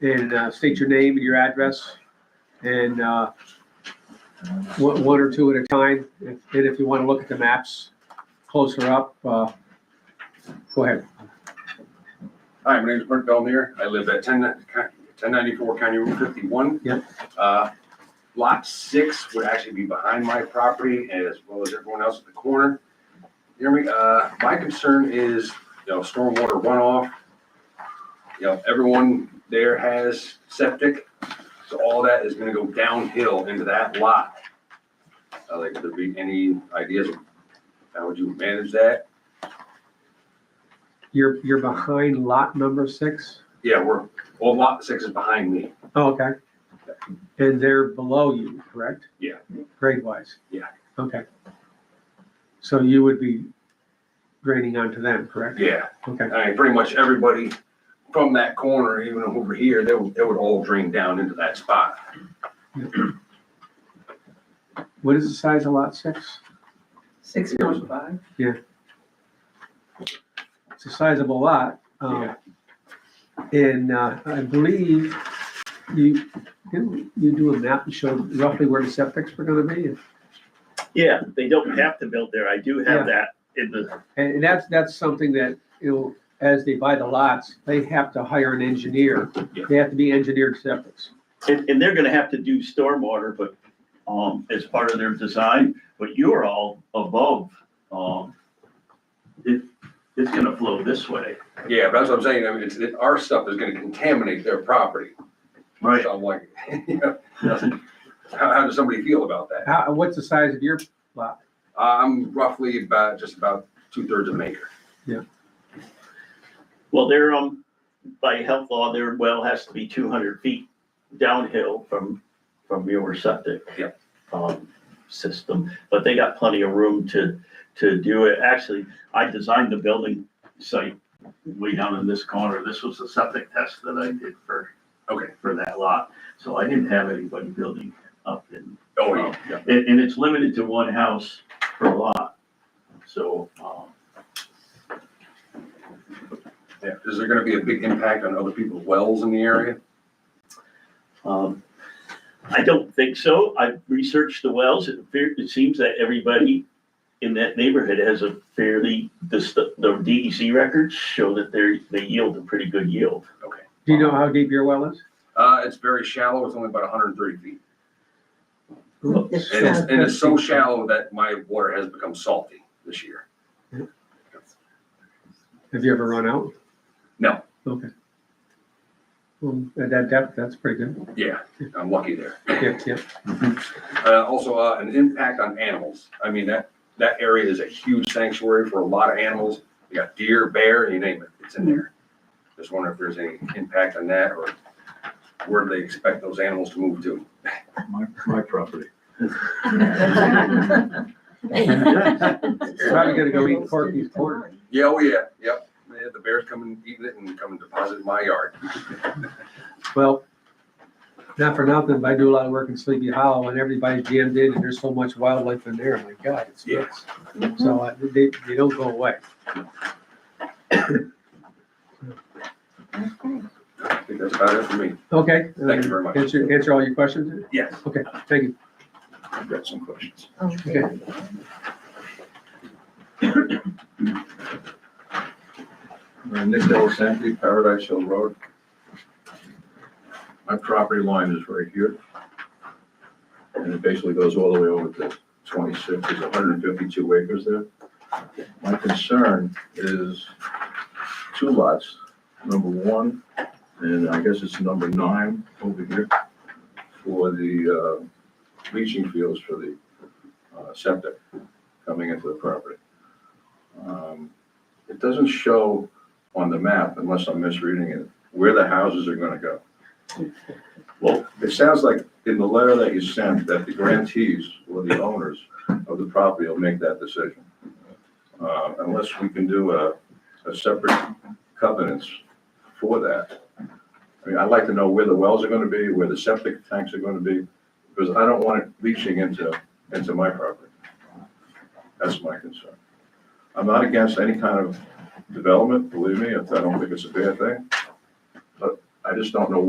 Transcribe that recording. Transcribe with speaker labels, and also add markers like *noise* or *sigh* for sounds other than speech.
Speaker 1: and uh, state your name and your address and uh, one one or two at a time. If- And if you want to look at the maps closer up, uh, go ahead.
Speaker 2: Hi, my name is Brent Belmere. I live at 10 1094 County Route 51.
Speaker 1: Yep.
Speaker 2: Uh, Lot 6 would actually be behind my property as well as everyone else at the corner. Hear me, Uh, my concern is, you know, stormwater runoff. You know, everyone there has septic, so all that is going to go downhill into that lot. I'd like, to be any ideas of how would you manage that?
Speaker 1: You're, you're behind lot number six?
Speaker 2: Yeah, we're, well, Lot 6 is behind me.
Speaker 1: Oh, okay. And they're below you, correct?
Speaker 2: Yeah.
Speaker 1: Grade wise?
Speaker 2: Yeah.
Speaker 1: Okay. So you would be grading onto them, correct?
Speaker 2: Yeah.
Speaker 1: Okay,
Speaker 2: I mean, pretty much everybody from that corner, even over here, they would, they would all drain down into that spot.
Speaker 1: what is the size of lot six?
Speaker 3: Six point
Speaker 1: *laughs*
Speaker 3: five?
Speaker 1: It's a sizable lot. um, And uh, I believe you, didn't you do a map and showed roughly where the septics were gonna be?
Speaker 4: Yeah, they don't have to build there. I do have that in the,
Speaker 1: And and that's, that's something that, you know, as they buy the lots, they have to hire an engineer.
Speaker 2: Yeah.
Speaker 1: They have to be engineered septics.
Speaker 4: and, and they're gonna have to do stormwater, but, um, as part of their design, but you're all above, um, it, it's gonna flow this way.
Speaker 2: Yeah, but that's what I'm saying, I mean, it's, it, our stuff is gonna contaminate their property. So I'm like, *laughs* you know, how, how does somebody feel about that?
Speaker 1: How, what's the size of your,
Speaker 2: I'm roughly about, just about two thirds of an acre.
Speaker 4: Well, they're, um, by health law, their well has to be two hundred feet downhill from, from your septic.
Speaker 2: Yep.
Speaker 4: Um, system, but they got plenty of room to, to do it. Actually, I designed the building site way down in this corner. This was the septic test that I did for,
Speaker 2: Okay.
Speaker 4: for that lot. So I didn't have anybody building up in
Speaker 2: Oh, yeah, yeah.
Speaker 4: and, and it's limited to one house per lot. So, um,
Speaker 2: yeah. Is there gonna be a big impact on other people's wells in the area?
Speaker 4: Um, I don't think so. I researched the wells. It appear it seems that everybody in that neighborhood has a fairly, the, st- the DEC records show that they're, they yield a pretty good yield.
Speaker 1: do you know how deep your well is?
Speaker 2: Uh, it's very shallow, it's only about hundred and thirty feet.
Speaker 3: It's
Speaker 2: And it's, and it's so shallow that my water has become salty this year.
Speaker 1: Have you ever run out?
Speaker 2: No.
Speaker 1: Okay. Well, at that depth, that's pretty good.
Speaker 2: Yeah, I'm lucky there.
Speaker 1: Yeah, yeah.
Speaker 2: Uh, also, uh, an impact on animals. I mean, that, that area is a huge sanctuary for a lot of animals. You got deer, bear, you name it, it's in there. Just wondering if there's any impact on that or where do they expect those animals to move to?
Speaker 5: My, my property.
Speaker 1: Probably gonna go eat Corky's corner.
Speaker 2: Yeah, oh yeah, yep. Yeah, the bears come and eat it and come and deposit in my yard.
Speaker 1: Well, not for nothing, but I do a lot of work in Sleepy Hollow and everybody's jammed in and there's so much wildlife in there. My God, it's
Speaker 2: Yeah.
Speaker 1: nuts. So uh, they, they don't go away.
Speaker 2: I think that's about it for me.
Speaker 1: Okay. uh,
Speaker 2: Thank you very much.
Speaker 1: Answer, answer all your questions?
Speaker 2: Yes.
Speaker 1: Okay, thank you.
Speaker 5: I've got some questions.
Speaker 1: Okay.
Speaker 5: Nick Delasanti, Paradise Hill Road. My property line is right here. And it basically goes all the way over to twenty-six, there's hundred and fifty-two acres there. My concern is two lots, number one, and I guess it's number nine over here, for the uh, leaching fields for the uh, septic coming into the property. Um, It doesn't show on the map, unless I'm misreading it, where the houses are gonna go.
Speaker 4: Well-
Speaker 5: It sounds like in the letter that you sent, that the grantees or the owners of the property will make that decision. Uh, unless we can do a, a separate covenants for that. I mean, I'd like to know where the wells are gonna be, where the septic tanks are gonna be, because I don't want it leaching into, into my property. That's my concern. I'm not against any kind of development, believe me, I don't think it's a bad thing. But I just don't know